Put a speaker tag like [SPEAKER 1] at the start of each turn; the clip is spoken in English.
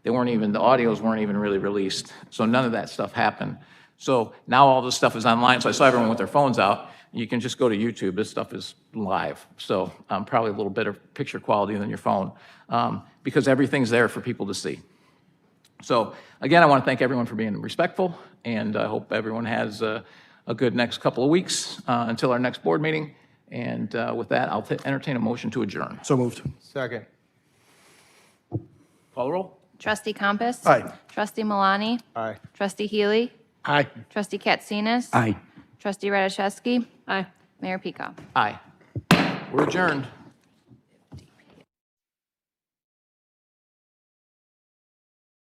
[SPEAKER 1] They weren't even, the audios weren't even really released, so none of that stuff happened. So now all this stuff is online, so I saw everyone with their phones out. You can just go to YouTube, this stuff is live. So um, probably a little better picture quality than your phone, um, because everything's there for people to see. So again, I want to thank everyone for being respectful, and I hope everyone has uh, a good next couple of weeks uh, until our next board meeting. And uh, with that, I'll t- entertain a motion to adjourn.
[SPEAKER 2] So moved.
[SPEAKER 3] Second.
[SPEAKER 1] Call the roll.
[SPEAKER 4] Trustee Compass.
[SPEAKER 2] Aye.
[SPEAKER 4] Trustee Malani.
[SPEAKER 3] Aye.
[SPEAKER 4] Trustee Healy.
[SPEAKER 2] Aye.
[SPEAKER 4] Trustee Katsinas.
[SPEAKER 2] Aye.
[SPEAKER 4] Trustee Radiszewski. Aye. Mayor Peacock.
[SPEAKER 1] Aye. We're adjourned.